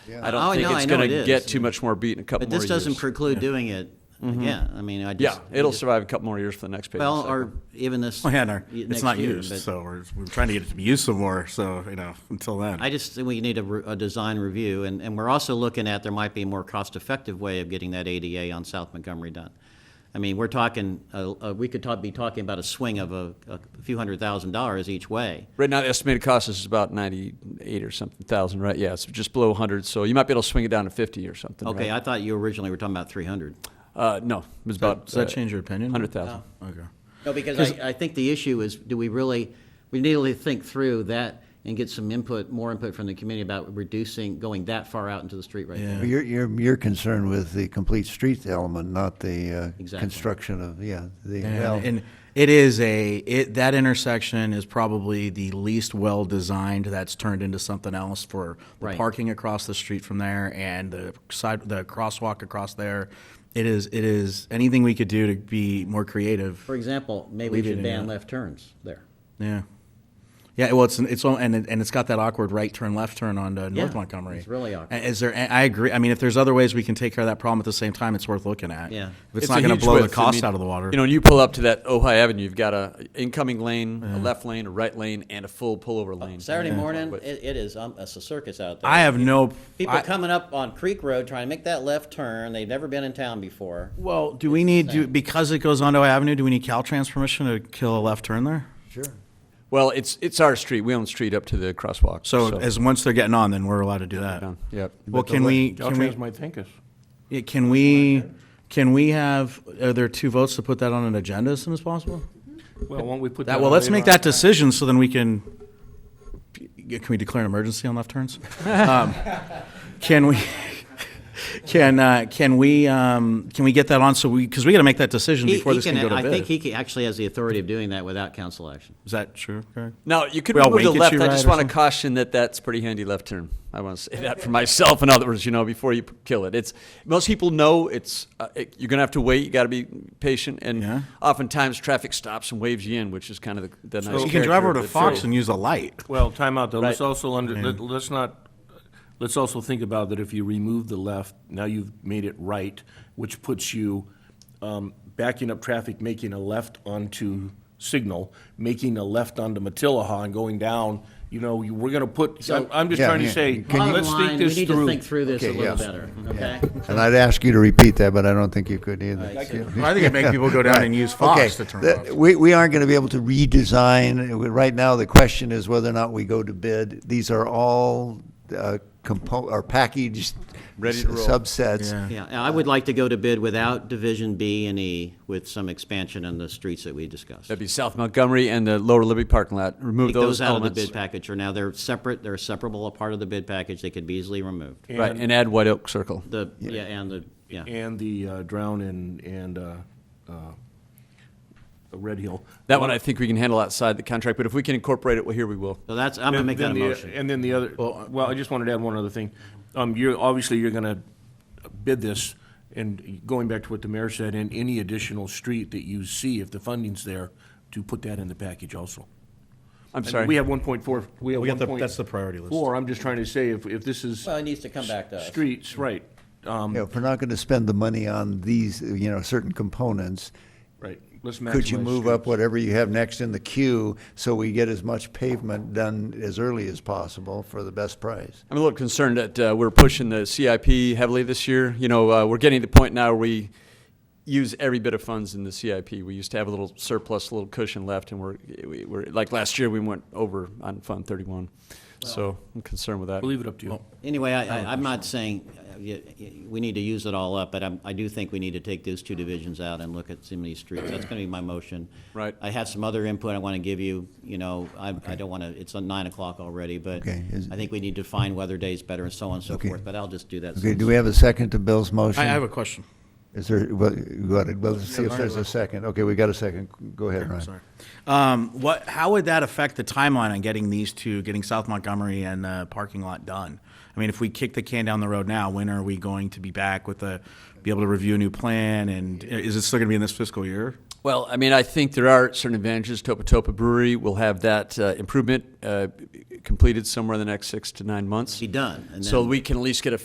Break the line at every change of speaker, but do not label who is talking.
I don't
Oh,
think
no,
it's
I know
going
it
to
is.
get too much more beat in a couple
But
more
this doesn't
years.
preclude doing it again. I mean, I
yeah,
just. I
it'll
just-
survive a couple more years for the next pay.
Well, or even this.
Well, yeah, no, it's
next
not
year,
used,
but
so we're, we're trying to get it to be used some more. So you know, until then,
I just think we need a, re- a design review, and, and we're also looking at, there might be a more cost-effective way of getting that ADA on South Montgomery done. I mean, we're talking, uh, uh, we could talk, be talking about a swing of a, a few hundred thousand dollars each way.
right now, the estimated cost is about ninety-eight or something thousand, right? Yeah, it's just below hundred, so you might be able to swing it down to fifty or something.
Okay,
right?
I thought you originally were talking about three hundred.
uh, no, it was about. uh,
does that
uh,
change your opinion?
Hundred thousand.
Oh. okay.
No, because I, I think the issue is, do we really, we need to think through that and get some input, more input from the community about reducing, going that far out into the street right there.
But You're, you're, you're concerned with the complete street element, not the uh,
Exactly.
construction of, yeah, the,
And,
well,
and it is a it that intersection is probably the least well designed. That's turned into something else for the
Right.
parking across the street from there and the side the crosswalk across there. It is it is anything we could do to be more creative.
For example, maybe
Leave
we
it
should
in
ban
that.
left turns there.
Yeah. Yeah, well, it's it's all- and it, and it's got that awkward right turn, left turn on uh, North
Yeah,
Montgomery.
it's really awkward.
And Is there? and I agree. I mean, if there's other ways we can take care of that problem at the same time, it's worth looking at.
Yeah.
if it's, not going to blow the cost out of the water.
You know, when you pull up to that Ojai Avenue, you've got a incoming lane, a left lane, a right lane, and a full pullover lane.
Saturday morning,
But-
it, it is, um, it's a circus out there.
I have no.
People
I-
coming up on Creek Road trying to make that left turn. They've never been in town before.
Well, do we need do, because it goes onto Avenue? Do we need Caltrans permission to kill a left turn there?
sure.
Well, it's it's our street. We own the street up to the crosswalk.
So, as once they're getting on, then we're allowed to do that.
down. Yep.
Well, can we? Can we?
Caltrans might thank us.
yeah, Can we? Can we have? Are there two votes to put that on an agenda as soon as possible?
Well, won't we put that?
That, well,
on
let's
later
make
on?
that decision so then we can, can we declare an emergency on left turns? um, can we, can, uh, can we, um, can we get that on so we, because we got to make that decision
He-
before
he
this
can-
can, go to
I
bid.
think he can- actually has the authority of doing that without council action.
Is that true? Greg?
Now you could
We all
move to
wink
the
at
left.
you,
I
right,
just
or
want to
something?
caution that that's pretty handy left turn. I want to say that for myself and others. You know, before you kill it, it's most people know it's uh, it, you're gonna have to wait. You got to be patient, and
Yeah.
oftentimes traffic stops and waves you in, which is kind of the, the nice.
You can drive
character
over to
of the
Fox
city.
and use a light.
Well, time out though. Let's
Right.
also under, let- let's not, let's also think about that if you remove the left, now you've made it right, which puts you um, backing up traffic, making a left onto Signal, making a left onto Matilahaw and going down, you know, you- we're gonna put, I'm, I'm just
Yeah,
trying to
yeah.
say,
Can
Bottom
let's
line,
think
we
this
need to
through.
think through this a
Okay,
little
yes.
better, okay?
And I'd ask you to repeat that, but I don't think you could either.
I think it make people go down and use
Okay,
Fox to turn
the-
off.
we, we aren't gonna be able to redesign, right now, the question is whether or not we go to bid. These are all, uh, compo, or packaged
Ready to roll.
subsets.
Yeah.
Yeah, and I would like to go to bid without Division B and E with some expansion on the streets that we discussed.
That'd be South Montgomery and the Lower Libby parking lot. Remove
Take those out of the
elements,
bid package, or now they're separate, they're separable, a part of the bid package, they could be easily removed.
right, and add White Oak Circle.
The, yeah, and the, yeah.
And the uh, Drown and, and uh, uh, Red Hill.
That one I think we can handle outside the contract, but if we can incorporate it, well, here we will.
So that's, I'm gonna
Then-
make that a
then the- uh,
motion.
And then the other, well, I just wanted to add one other thing. Um, you're, obviously, you're gonna bid this, and going back to what the mayor said, and any additional street that you see, if the funding's there, to put that in the package also.
I'm
And
sorry.
We have one point four, we have
We
one
got the-
point.
that's the priority list.
Four, I'm just trying to say, if, if this is
Well, it needs to come back to us.
streets, right, um,
You know, if we're not gonna spend the money on these, you know, certain components,
right, let's maximize.
could you move
streets.
up whatever you have next in the queue so we get as much pavement done as early as possible for the best price?
I'm a little concerned that uh, we're pushing the CIP heavily this year. You know, uh, we're getting to the point now where we use every bit of funds in the CIP. We used to have a little surplus, a little cushion left, and we're, we- we're like last year we went over on Fund 31. so I'm concerned with that.
I'll leave it up to you.
Anyway, I, I- I'm not saying uh, y- y- we need to use it all up, but I'm- I do think we need to take those two divisions out and look at some of these streets. That's going to be my motion.
Right.
I have some other input I want to give you, you know, I I don't want to, it's on nine o'clock already, but
Okay, is-
I think we need to find weather days better and so on and so
Okay.
forth, but I'll just do that.
Okay,
soon.
do we have a second to Bill's motion?
I I have a question.
Is there, well, go ahead, well, let's see if there's a second. Okay, we got a second. Go ahead, Ryan.
Sorry. Um, what, how would that affect the timeline on getting these two, getting South Montgomery and the parking lot done? I mean, if we kick the can down the road now, when are we going to be back with a, be able to review a new plan? And is it still going to be in this fiscal year?
Well, I mean, I think there are certain advantages. Topa Topa Brewery will have that uh, improvement uh, completed somewhere in the next six to nine months.
Be done, and
So
then-
we can at least get a